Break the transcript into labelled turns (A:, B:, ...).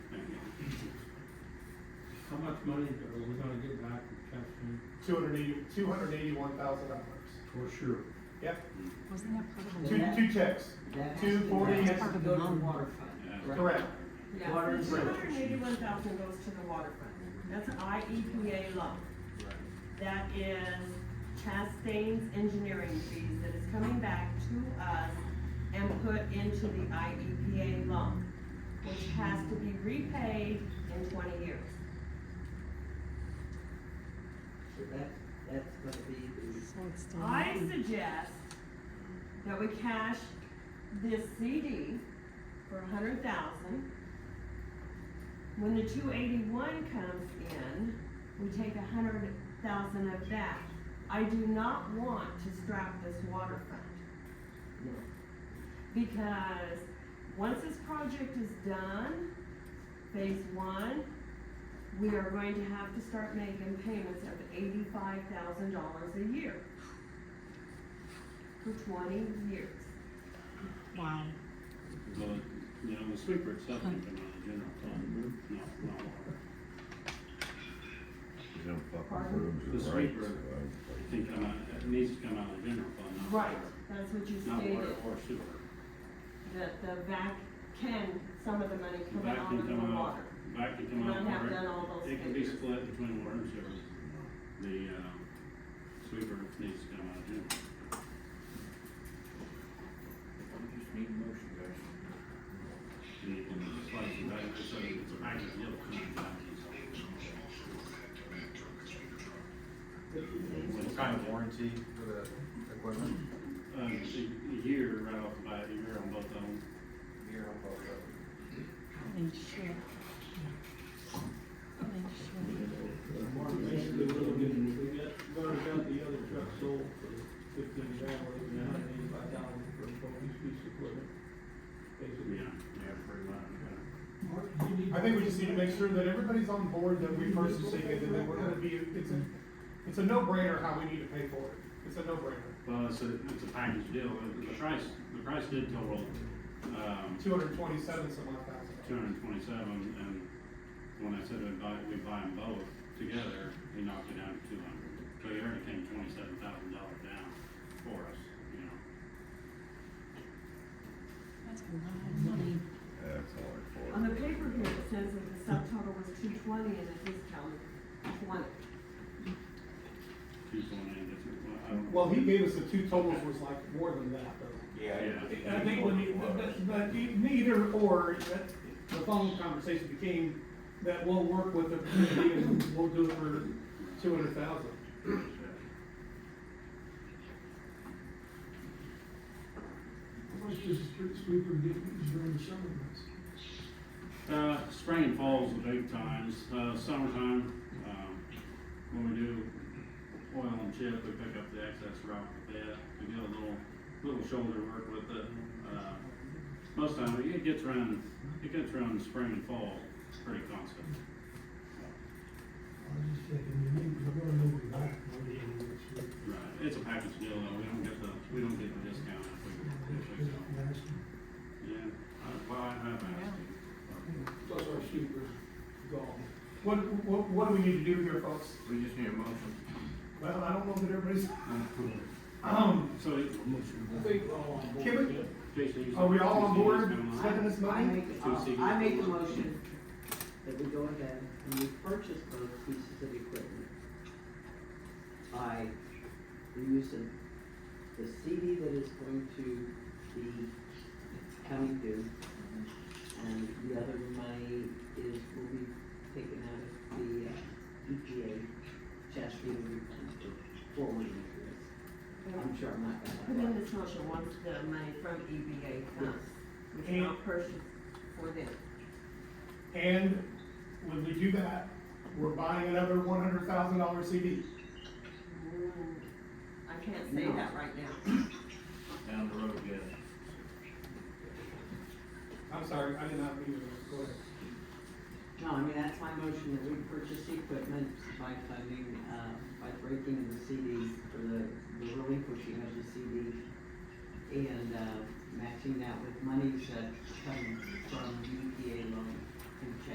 A: much money are we gonna get back from Capstone?
B: two hundred eighty, two hundred eighty-one thousand dollars.
A: For sure.
B: Yep,
C: Wasn't that part of the?
B: two,
C: water-
D: that-
B: two checks,
D: That has
B: Two
D: to-
B: forty
D: that
B: has
D: has
C: to
D: to
C: be
D: go to
C: mowed.
D: the water fund. right?
B: correct.
D: Water and
E: Yeah, two hundred and
D: sewage.
E: eighty-one thousand goes to the water fund. That's E an IEPA loan. That is Chastain's engineering fees that is coming back to us and put into the E IEPA loan, which has to be repaid in twenty years.
D: So that, that's gonna be the,
C: So it's still.
E: I suggest that we cash this CD for a hundred thousand. When the two eighty-one comes in, we take a hundred thousand of that. I do not want to strap this water fund,
D: no,
E: because once this project is done, phase one, we are going to have to start making payments of eighty-five thousand dollars a year for twenty years.
C: Wow.
F: Well, you know, the sweeper itself can come out of general fund,
A: Mm-hmm.
F: not, not water.
G: You don't fucking
E: Pardon?
G: rooms
F: The
G: are right.
F: sweeper.
G: so
F: It can come out, it needs to come out of general fund, not
E: Right,
F: water.
E: that's what you
F: Not water
E: stated,
F: or sewer.
E: that the VAC can, some of the money
F: The
E: come
F: Back
E: out of
F: can
E: the
F: come out,
E: water.
F: back can
E: And
F: come out of
E: I have done
F: water.
E: all those
F: It can be
E: figures.
F: split between water and sewer. The, um, sweeper needs to come out of general.
H: Just need a motion, guys.
F: And you can slice it back, so it's a package deal. kind of thing.
H: What kind of warranty for the equipment?
F: Um, a, a year right off the bat, a year on both of them.
H: Year on both of them.
C: Holy shit. Holy shit.
A: Basically, we're looking, we got, burned out the other truck sold for fifteen grand, we're looking at hundred eighty-five thousand for both these pieces of equipment. Basically.
F: Yeah, yeah, pretty much, yeah.
B: I think we just need to make sure that everybody's on board that we purchasing it, and that we're gonna be, it's a, it's a no-brainer how we need to pay for it. It's a no-brainer,
F: Well, it's a, it's a package deal, The- the price, the price did total, um,
B: two hundred twenty-seven some odd thousand.
F: two hundred and twenty-seven, and when I said I'd buy, we'd buy them both together, he knocked it down to two hundred. So he already came twenty-seven thousand dollars down for us, you know.
C: That's a lot of money.
G: That's all I
E: On
G: for.
E: the paper here, it says that the subtotal was two twenty and the discount was twenty.
F: Two point eight, that's, it. well, I don't.
B: Well, he gave us the two totals was like more than that, though.
F: Yeah.
B: I think when you, but, but e- neither or, that, the phone conversation became that we'll work with the community and we'll do it for two hundred thousand.
I: How much does a street sweeper get used during the summer months?
F: Uh, spring and fall is the big times, uh, summertime, um, when we do oil and chip, we pick up the excess rock a bit, we do a little, little shoulder work with it. Uh, Most time, it gets around, it gets around spring and fall pretty constant.
I: I was just thinking, you need, you're gonna move it back, maybe, in the next week.
F: Right, it's a package deal though, we don't get the, we don't get the discount if we, if we
I: Just
F: sell.
I: ask them.
F: Yeah, I- well, I have asked you.
A: Plus our super gone.
B: What, what, what do we need to do here, folks?
H: We just need a motion.
B: Well, I don't know that everybody's, um,
F: So,
A: I think we're all on board.
B: Can we-
A: with it.
F: Jason, you.
B: are we all on board
F: Come on.
B: second this
D: I
B: motion?
D: make, uh, I make a motion that we go ahead and we purchase those pieces of equipment by the use of the CD that is going to be coming due. And the other money is, will be taken out of the uh, EPA Chastain forward interest. I'm sure I'm not
E: Put
D: gonna.
E: in this motion once the money from E EBA comes, we cannot purchase for them.
B: And when we do that, we're buying another one hundred thousand dollar CD.
E: Mm, I can't say that right now.
H: Down the road, yes.
B: I'm sorry, I did not mean to, go ahead.
D: No, I mean, that's my motion, that we purchase the equipment by funding, uh, by breaking the CD, or the, the relinquishing of the CD, and, uh, matching that with monies that come from the EPA loan and check.